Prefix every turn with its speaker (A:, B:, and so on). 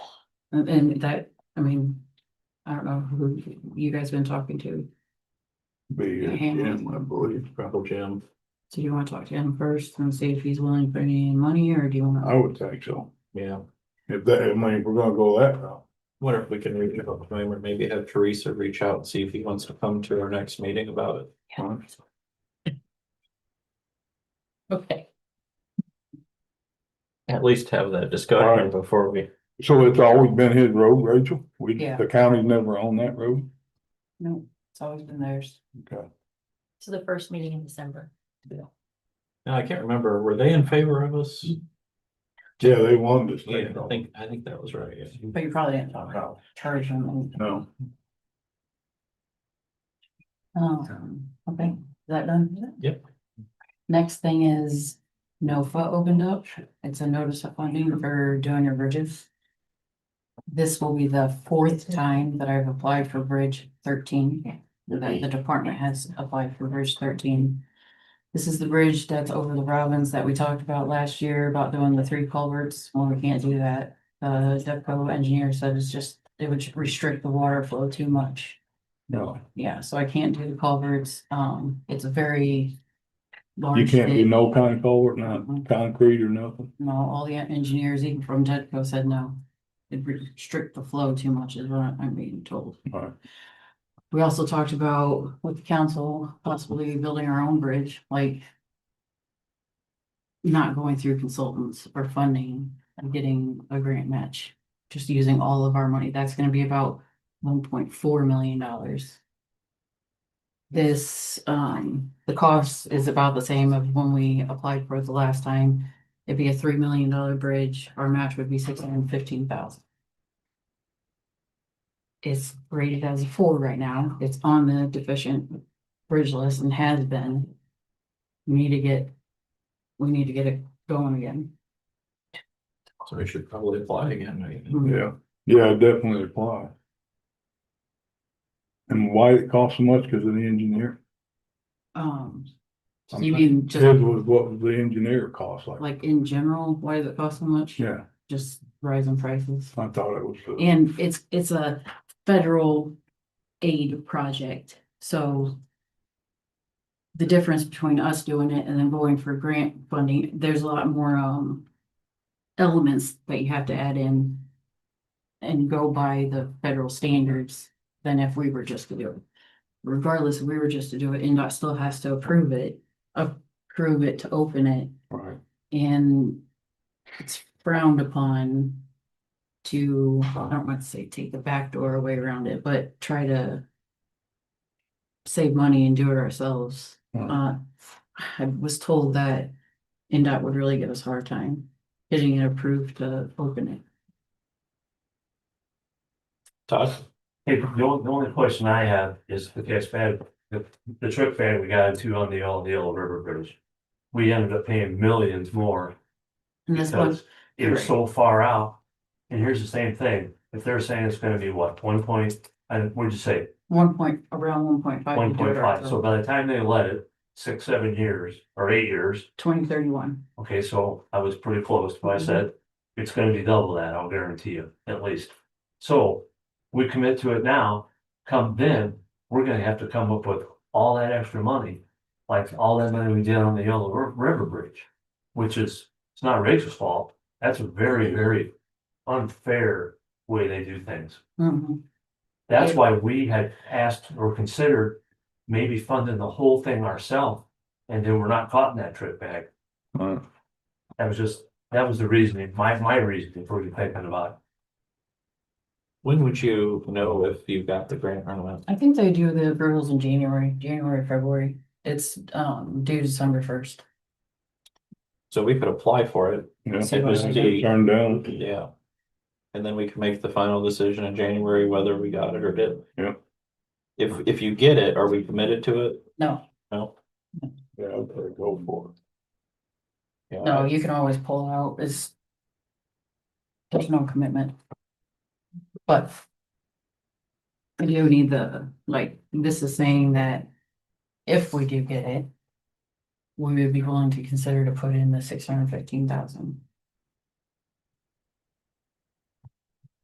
A: And, and that, I mean, I don't know who you guys been talking to.
B: Be
A: Yeah,
B: at
A: hand
B: Jim, I believe, probably Jim.
A: So do you want to talk to him first and see if he's willing to put any money or do you want
B: I
A: to?
B: would think so.
C: Yeah,
B: If that, I mean, if we're gonna go that route.
C: wonder if we can reach out to him or maybe have Teresa reach out and see if he wants to come to our next meeting about it.
A: Okay.
C: At least have that discussion
B: Alright.
C: before we.
B: So it's always been his road, Rachel? We,
A: Yeah.
B: the county's never owned that road?
A: No, it's always been theirs.
B: Okay.
D: to the first meeting in December.
C: Now, I can't remember, were they in favor of us?
B: Yeah, they wanted to
C: Yeah,
B: stay.
C: I think, I think that was right. yeah.
A: But you probably didn't talk about charge him and,
B: No,
A: um, okay, is that done?
C: Yep.
A: Next thing is NOFA opened up. It's a notice of funding for doing your bridges. This will be the fourth time that I've applied for Bridge thirteen. that the department has applied for bridge thirteen. This is the bridge that's over the Robbins that we talked about last year about doing the three culverts. Well, we can't do that. The DEPCO engineer said it's just, it would restrict the water flow too much.
B: no,
A: Yeah, so I can't do the culverts. Um, it's a very.
B: you
A: large
B: can't do
A: bid.
B: no kind of culvert, not
A: Uh-huh.
B: concrete or nothing.
A: No, all the engineers, even from Tedco, said no. It restrict the flow too much is what I'm being told.
B: Right.
A: We also talked about with the council possibly building our own bridge, like. Not going through consultants or funding and getting a grant match, just using all of our money. That's gonna be about one point four million dollars. This, um, the cost is about the same of when we applied for it the last time. It'd be a three million dollar bridge, our match would be six hundred and fifteen thousand. It's rated as a four right now, it's on the deficient bridge list and has been. We need to get, we need to get it going again.
C: So we should probably apply again. I
A: Mm-hmm.
C: think.
B: Yeah, yeah, I'd definitely apply. And why it costs so much? Cause of the engineer.
A: Um,
B: I'm
A: you
B: sorry.
A: mean
B: His
A: just
B: was what the engineer cost like.
A: like in general, why does it cost so much?
B: Yeah,
A: Just rising prices.
B: I thought it was. uh,
A: And it's, it's a federal aid project, so. The difference between us doing it and then going for grant funding, there's a lot more, um. Elements that you have to add in. And go by the federal standards than if we were just to do it. Regardless, if we were just to do it, NDOT still has to approve it, approve it to open it.
B: Right,
A: And it's frowned upon to, I don't want to say take the back door away around it, but try to save money and do it ourselves.
B: Hmm.
A: Uh, I was told that NDOT would really give us a hard time getting it approved to open it.
C: Todd?
E: Hey, the only, the only question I have is, okay, it's bad, the, the trip fan we got into on the All Yellow River Bridge. We ended up paying millions more
A: And this one,
E: because it was so far out. And here's the same thing, if they're saying it's gonna be what, one point, and what'd you say,
A: one point, around one point five.
E: one point five, so by the time they let it, six, seven years, or eight years.
A: Twenty thirty-one,
E: Okay, so I was pretty close, but I said, it's gonna be double that, I'll guarantee you, at least. So, we commit to it now, come then, we're gonna have to come up with all that extra money. Like all that money we did on the Yellow Ri- River Bridge, which is, it's not Rachel's fault, that's a very, very unfair way they do things.
A: Mhm.
E: That's
A: Yeah.
E: why we had asked or considered maybe funding the whole thing ourselves, and then we're not caught in that trip bag.
B: right.
E: That was just, that was the reasoning, my, my reasoning for thinking about
C: When would you know if you got the grant or not?
A: I think they do the approvals in January, January, February, it's, um, due December first.
C: So we could apply for it,
B: Yeah.
A: It was
C: the-
B: Turned down.
C: yeah. And then we can make the final decision in January whether we got it or didn't.
B: Yeah.
C: If, if you get it, are we committed to it?
A: No,
C: No?
B: Yeah, I'd say go for
C: Yeah,
A: no, you can always pull out, it's. There's no commitment. But. I do need the, like, this is saying that if we do get it. We would be willing to consider to put in the six hundred fifteen thousand.